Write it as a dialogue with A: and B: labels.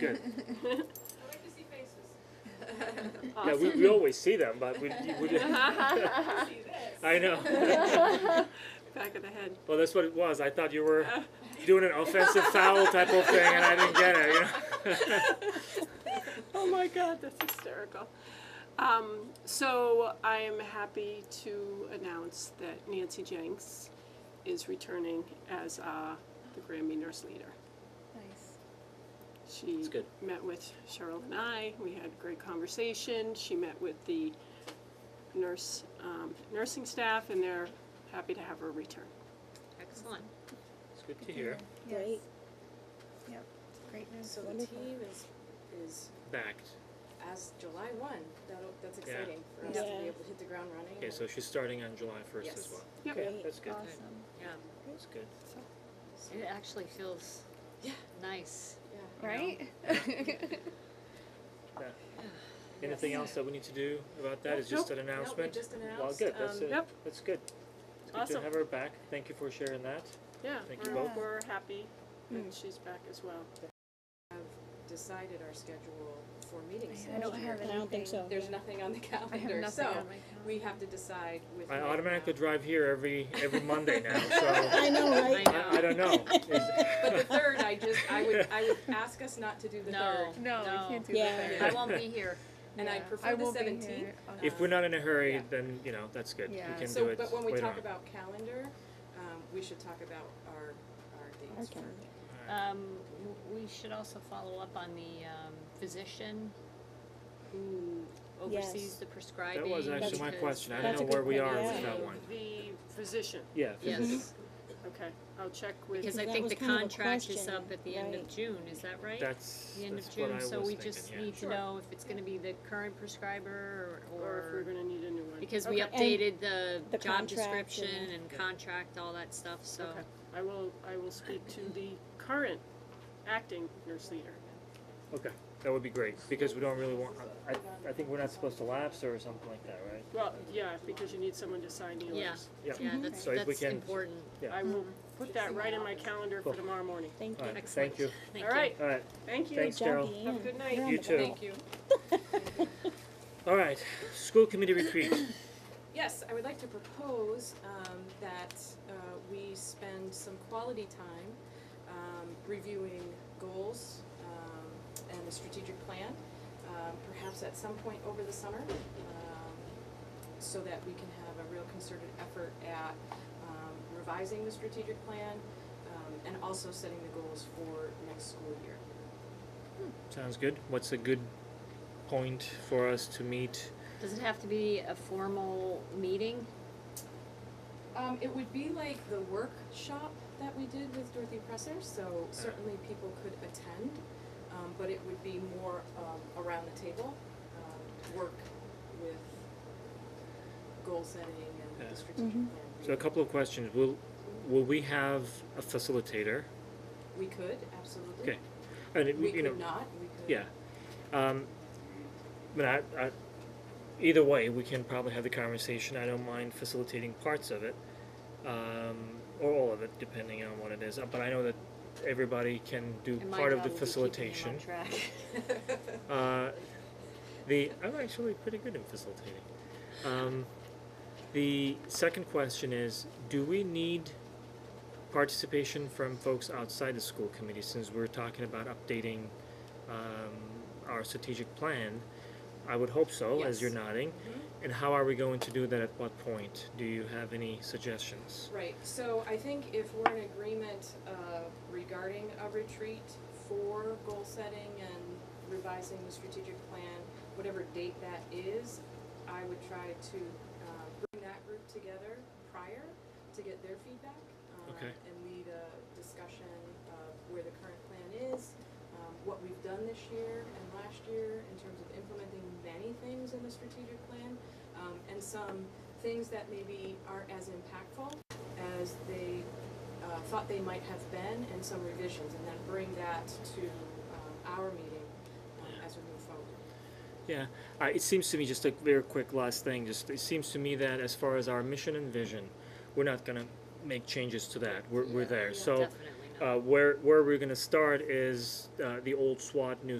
A: Good.
B: I like to see faces.
A: Yeah, we, we always see them, but we, we didn't.
B: See this.
A: I know.
C: Back of the head.
A: Well, that's what it was. I thought you were
B: Uh.
A: doing an offensive foul type of thing, and I didn't get it. You know?
C: Oh my God, that's hysterical. Um, so I am happy to announce that Nancy Jenks is returning as uh, the Grammy nurse leader.
D: Nice.
C: She
A: That's good.
C: met with Cheryl and I. We had a great conversation. She met with the nurse um, nursing staff, and they're happy to have her return.
E: Excellent.
A: It's good to hear.
D: Yes.
F: Great.
D: Yep. Great news.
F: So the
D: Wonderful.
F: team is, is
A: Backed.
F: as July one, that'll, that's
A: Yeah.
F: exciting for us to
D: Yeah.
F: be able to hit the ground running.
A: Okay, so she's starting on July 1st as
F: Yes.
A: well.
C: Yep.
A: Okay,
F: Great.
A: that's good.
D: Awesome.
E: Yeah.
A: That's good.
E: It actually feels
F: Yeah.
E: nice.
F: Yeah.
D: Right?
A: Anything else that we need to do about that?
F: Nope,
A: Is just
F: nope,
A: an
F: nope, we
A: announcement?
F: just
A: Well,
F: announced,
A: good. That's
F: um,
A: it.
C: Yep.
A: That's good. It's good to
C: Awesome.
A: have her back. Thank you for sharing that.
C: Yeah,
A: Thank you
C: we're,
D: both.
C: we're happy that she's back as well.
F: Decided our schedule for meetings
D: I don't
F: next year.
D: have anything.
G: I don't think so.
F: There's nothing on the
D: I have
F: calendar,
D: nothing on
F: so
D: my
F: we have to decide with.
A: I
F: right
A: automatically
F: now.
A: drive here every every Monday now, so
G: I know,
E: I
G: right?
A: I, I
E: know.
A: don't know.
F: But the third, I just, I would, I would ask us not to do the third,
E: No.
D: No,
E: no.
D: we can't do
G: Yeah.
D: that.
E: I won't be here.
F: and I
D: Yeah.
F: prefer the
D: won't be
F: seventeenth.
D: here on
A: If we're not in a hurry,
F: Yeah.
A: then you know that's good.
D: Yeah.
A: We can do
F: So,
A: it.
F: but when we
A: later
F: talk
A: on.
F: about calendar, um, we should talk about our, our dates for
G: Okay.
A: Uh,
E: Um, w- we should also follow up on the um, physician who oversees
G: Yes.
E: the prescribing.
A: that was actually my
E: because-
A: question. I
G: That's
A: don't know
G: a
A: where
G: good
A: we
G: point,
A: are
G: yeah.
A: with that one.
C: The physician,
A: Yeah. physician.
E: Yes,
C: okay, I'll check with.
E: because
G: Yeah,
E: I
G: that
E: think
G: was
E: the
G: kind of a
E: contract is
G: question,
E: up at the end of
G: right.
E: June, is that right?
A: That's
E: The end
A: that's
E: of June,
A: what I
E: so
A: was
E: we
A: thinking,
E: just
A: yeah.
E: need to
C: Sure.
E: know if it's gonna be the current prescriber or.
C: Or if we're gonna need a new one.
E: Because we
C: Okay.
E: updated the
G: The
E: job
G: contract and-
E: description and contract, all that stuff, so.
C: Okay. I will, I will speak to the current acting nurse leader.
A: Okay, that would be great because we don't really want. I, I- I think we're not supposed to lapse or something like that, right?
C: Well, yeah, because you need someone to sign the
E: Yeah.
C: orders.
A: Yeah.
E: Yeah, that's,
A: So if we
E: that's
A: can-
E: important.
A: Yeah.
C: I will put that right in my calendar for tomorrow morning.
G: Thank
A: All
G: you.
A: right.
E: Excellent.
A: Thank you.
E: Thank
C: All
E: you.
C: right,
A: All right.
C: thank you.
A: Thanks,
G: Good job,
A: Daryl.
G: Deanne.
C: Have a good night.
G: You're on
A: You
G: the
A: too.
G: ball.
F: Thank you.
A: All right. School committee retreat.
F: Yes, I would like to propose um, that uh, we spend some quality time um, reviewing goals um, and the strategic plan, um, perhaps at some point over the summer, um, so that we can have a real concerted effort at um, revising the strategic plan um, and also setting the goals for next school year.
A: Sounds good. What's a good point for us to meet?
E: Does it have to be a formal meeting?
F: Um, it would be like the workshop that we did with Dorothy Presser, so certainly people could attend, um, but it would be more, um, around the table, um, work with goal setting and
A: Yeah.
F: the strategic plan.
A: So a couple of questions. Will will we have a facilitator?
F: We could, absolutely.
A: Okay. And it,
F: We
A: you know,
F: could not, we could.
A: Yeah. Um, but I, I, either way, we can probably have the conversation. I don't mind facilitating parts of it, um, or all of it, depending on what it is. Uh, But I know that everybody can do
E: And my
A: part of
E: job
A: the
E: will be keeping
A: facilitation.
E: him on track.
A: Uh, the I'm actually pretty good in facilitating. Um, the second question is: Do we need participation from folks outside the school committee? Since we're talking about updating um, our strategic plan, I would hope so. As
F: Yes.
A: you're nodding, and how are we going to do that? At what point? Do you have any suggestions?
F: Right, so I think if we're in agreement uh, regarding a retreat for goal setting and revising the strategic plan, whatever date that is, I would try to uh, bring that group together prior to get their feedback. um,
A: Okay.
F: And lead a discussion of where the current plan is, um, what we've done this year and last year in terms of implementing many things in the strategic plan, um, and some things that maybe aren't as impactful as they uh, thought they might have been, and some revisions, and then bring that to um, our meeting um, as we move forward.
A: Yeah, I, it seems to me just a very quick last thing. Just it seems to me that as far as our mission and vision, we're not gonna make changes to that. We're, we're there.
E: Yeah,
A: so
E: Definitely
A: uh, where where we're going to start is uh, the old SWOT, new